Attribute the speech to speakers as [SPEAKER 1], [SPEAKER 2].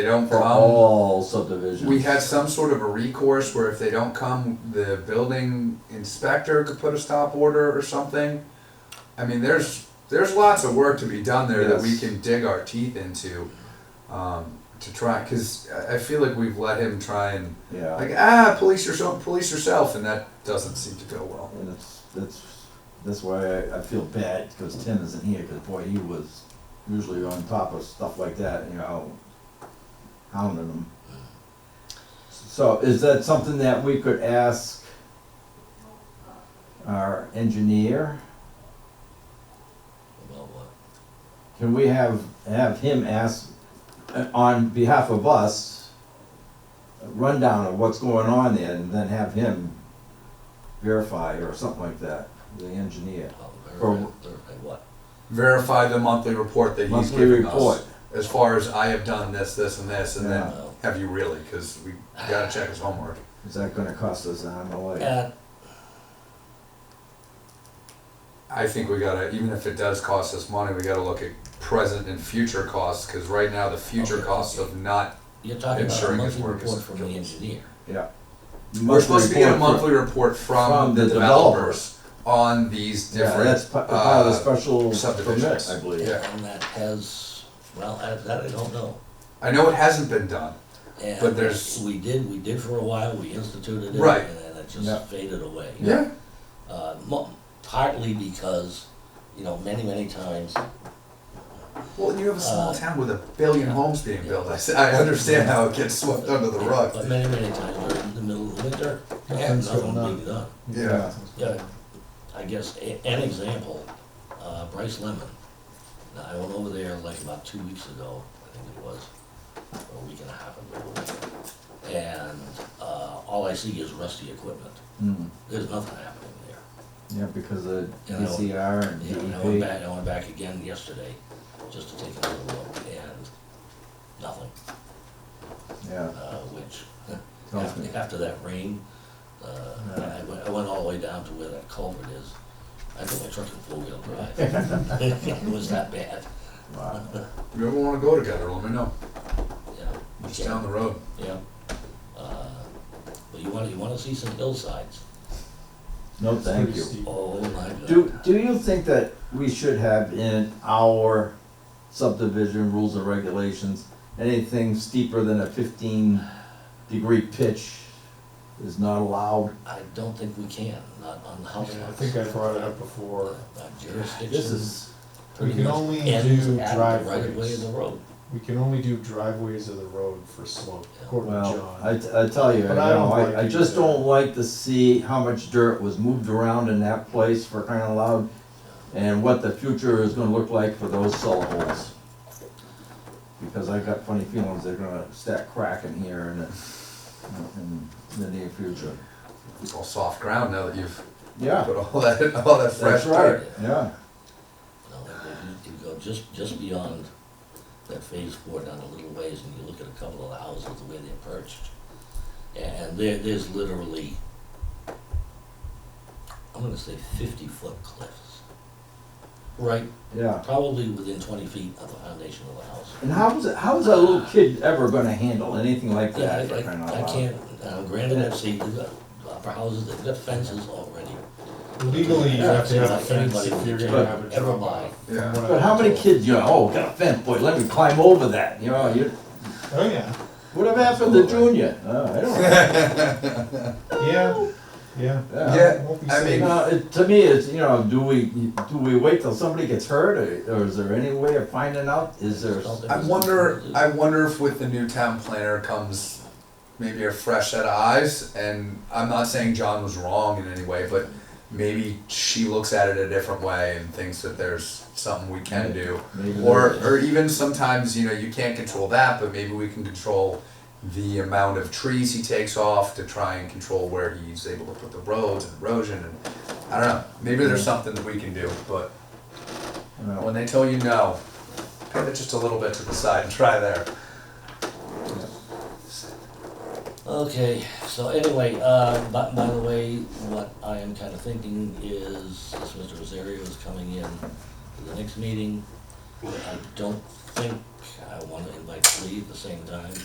[SPEAKER 1] They don't
[SPEAKER 2] for
[SPEAKER 1] come.
[SPEAKER 2] all subdivisions.
[SPEAKER 1] Um, We had some sort of a recourse where if they don't come, the building inspector could put a stop order or something. I mean, there's, there's lots of work to be done there that we
[SPEAKER 2] Yes.
[SPEAKER 1] can dig our teeth into, um, to try, cause I, I feel like we've let him try and,
[SPEAKER 2] Yeah,
[SPEAKER 1] like, ah, police yourself, police yourself, and that doesn't seem to go well.
[SPEAKER 2] and it's, that's, that's why I, I feel bad, because Tim isn't here, because boy, he was usually on top of stuff like that, you know, hounding them. So is that something that we could ask our engineer?
[SPEAKER 3] About what?
[SPEAKER 2] Can we have, have him ask, uh, on behalf of us, a rundown of what's going on there, and then have him verify or something like that, the engineer?
[SPEAKER 3] About
[SPEAKER 2] Or-
[SPEAKER 3] verify, verify what?
[SPEAKER 1] Verify the monthly report that he's
[SPEAKER 2] Monthly
[SPEAKER 1] giving
[SPEAKER 2] report,
[SPEAKER 1] us, as far as I have done this, this, and this, and then,
[SPEAKER 2] Yeah.
[SPEAKER 3] No.
[SPEAKER 1] have you really, cause we gotta check his homework.
[SPEAKER 2] is that gonna cost us an arm and a leg?
[SPEAKER 3] Uh,
[SPEAKER 1] I think we gotta, even if it does cost us money, we gotta look at present and future costs, cause right now the future
[SPEAKER 3] Okay.
[SPEAKER 1] costs of not,
[SPEAKER 3] you're talking about a
[SPEAKER 1] Ensuring his
[SPEAKER 3] monthly
[SPEAKER 1] work is
[SPEAKER 3] report from the
[SPEAKER 1] complete.
[SPEAKER 3] engineer.
[SPEAKER 2] Yeah.
[SPEAKER 1] we're supposed to get a
[SPEAKER 2] Monthly
[SPEAKER 1] monthly report from
[SPEAKER 2] from
[SPEAKER 1] the
[SPEAKER 2] the
[SPEAKER 1] developers on these
[SPEAKER 2] report. Yeah, that's
[SPEAKER 1] different,
[SPEAKER 2] pa- part of the
[SPEAKER 1] uh,
[SPEAKER 2] special
[SPEAKER 1] subdivisions.
[SPEAKER 2] permit, I believe.
[SPEAKER 1] Yeah.
[SPEAKER 3] And that has, well, I- that I don't know.
[SPEAKER 1] I know it hasn't been done.
[SPEAKER 3] And
[SPEAKER 1] But there's-
[SPEAKER 3] We did, we did for a while, we instituted it.
[SPEAKER 1] Right.
[SPEAKER 3] And then it
[SPEAKER 2] Yeah.
[SPEAKER 3] just faded away. Uh, mo- partly because, you know, many, many times,
[SPEAKER 1] Well, you have a small
[SPEAKER 3] Uh,
[SPEAKER 1] town with a billion homes being built, I, s- I understand how it gets swept under the
[SPEAKER 3] but
[SPEAKER 1] rug,
[SPEAKER 3] many, many times we're in the middle of winter and
[SPEAKER 2] Nothing's going
[SPEAKER 3] nothing
[SPEAKER 2] on.
[SPEAKER 3] being done.
[SPEAKER 1] yeah.
[SPEAKER 3] Yeah, I guess a- an example, uh, Bryce Lemon. Now, I went over there like about two weeks ago, I think it was, or a week and a half ago. And uh, all I see is rusty equipment.
[SPEAKER 2] Mm,
[SPEAKER 3] There's nothing happening there.
[SPEAKER 2] Yeah, because of
[SPEAKER 3] You know,
[SPEAKER 2] DCR and E
[SPEAKER 3] And I went
[SPEAKER 2] DEP.
[SPEAKER 3] back, I went back again yesterday just to take another look and nothing,
[SPEAKER 2] Yeah,
[SPEAKER 3] uh, which
[SPEAKER 2] tells me.
[SPEAKER 3] After, after that rain, uh,
[SPEAKER 2] Yeah.
[SPEAKER 3] I went, I went all the way down to where that culvert is. I put my truck in four-wheel drive. It was that bad,
[SPEAKER 2] Wow.
[SPEAKER 1] If you ever wanna go together, let me know,
[SPEAKER 3] yeah.
[SPEAKER 1] it's down the road.
[SPEAKER 3] Yeah. Uh, But you wanna, you wanna see some hillsides?
[SPEAKER 2] No, thank you.
[SPEAKER 3] Oh, my God.
[SPEAKER 2] Do, do you think that we should have in our subdivision rules and regulations, anything steeper than a fifteen degree pitch is not allowed?
[SPEAKER 3] I don't think we can, not on the house
[SPEAKER 4] Yeah, I
[SPEAKER 3] lots.
[SPEAKER 4] think I brought it up before.
[SPEAKER 3] Our jurisdiction.
[SPEAKER 2] This is,
[SPEAKER 3] pretty
[SPEAKER 4] we can
[SPEAKER 3] much
[SPEAKER 4] only
[SPEAKER 3] ends
[SPEAKER 4] do
[SPEAKER 3] at the Right of way of
[SPEAKER 4] driveways.
[SPEAKER 3] the road.
[SPEAKER 4] We can only do driveways of the road for slope, according to
[SPEAKER 2] well,
[SPEAKER 4] John.
[SPEAKER 2] I, t- I tell you, you
[SPEAKER 4] But I don't
[SPEAKER 2] know,
[SPEAKER 4] like
[SPEAKER 2] I, I
[SPEAKER 4] it
[SPEAKER 2] just
[SPEAKER 4] either.
[SPEAKER 2] don't like to see how much dirt was moved around in that place for crying out loud, and what the future is gonna look like for those cellar holes. Because I got funny feelings they're gonna start cracking here in the, in the near future.
[SPEAKER 1] It's all soft ground now that you've
[SPEAKER 2] Yeah,
[SPEAKER 1] put all that, all that fresh
[SPEAKER 2] that's
[SPEAKER 1] dirt.
[SPEAKER 2] right, yeah.
[SPEAKER 3] No, if you go just, just beyond that phase four down a little ways and you look at a couple of the houses, the way they're perched. And there, there's literally, I'm gonna say fifty foot cliffs. Right,
[SPEAKER 2] Yeah.
[SPEAKER 3] probably within twenty feet of the foundation of the house.
[SPEAKER 2] And how was it, how was that little kid ever gonna handle anything like
[SPEAKER 3] Yeah,
[SPEAKER 2] that?
[SPEAKER 3] I,
[SPEAKER 2] for crying out
[SPEAKER 3] I, I
[SPEAKER 2] loud?
[SPEAKER 3] can't, uh, granted, I've seen, they've got upper houses, they've got fences already.
[SPEAKER 4] Legally, you have to have a
[SPEAKER 3] Like anybody
[SPEAKER 4] fence if
[SPEAKER 3] with
[SPEAKER 4] you're
[SPEAKER 3] a
[SPEAKER 4] gonna
[SPEAKER 2] job
[SPEAKER 4] have a
[SPEAKER 3] ever
[SPEAKER 4] drop
[SPEAKER 3] buy.
[SPEAKER 4] off.
[SPEAKER 1] Yeah.
[SPEAKER 2] But how many kids, you know, oh, got a fence, boy, let me climb over that, you know, you,
[SPEAKER 4] Oh, yeah,
[SPEAKER 2] whatever happened to Junior? Oh, I don't know.
[SPEAKER 4] yeah, yeah.
[SPEAKER 2] Yeah.
[SPEAKER 4] It won't be
[SPEAKER 1] I
[SPEAKER 4] safe.
[SPEAKER 1] mean-
[SPEAKER 2] Now, Uh, it, to me, it's, you know, do we, do we wait till somebody gets hurt, or, or is there any way of finding out, is there? s-
[SPEAKER 1] I wonder, I wonder if with the new town planner comes maybe a fresh set of eyes, and I'm not saying John was wrong in any way, but maybe she looks at it a different way and thinks that there's something we can do.
[SPEAKER 2] maybe
[SPEAKER 1] Or,
[SPEAKER 2] there-
[SPEAKER 1] or even sometimes, you know, you can't control that, but maybe we can control the amount of trees he takes off to try and control where he's able to put the roads and erosion and, I don't know, maybe there's something that we can do, but
[SPEAKER 2] you know,
[SPEAKER 1] when they tell you no, pivot just a little bit to the side and try there.
[SPEAKER 3] Okay, so anyway, uh, by, by the way, what I am kinda thinking is, this Mr. Rosario is coming in to the next meeting. I don't think, I I wanna invite Lee at the same time.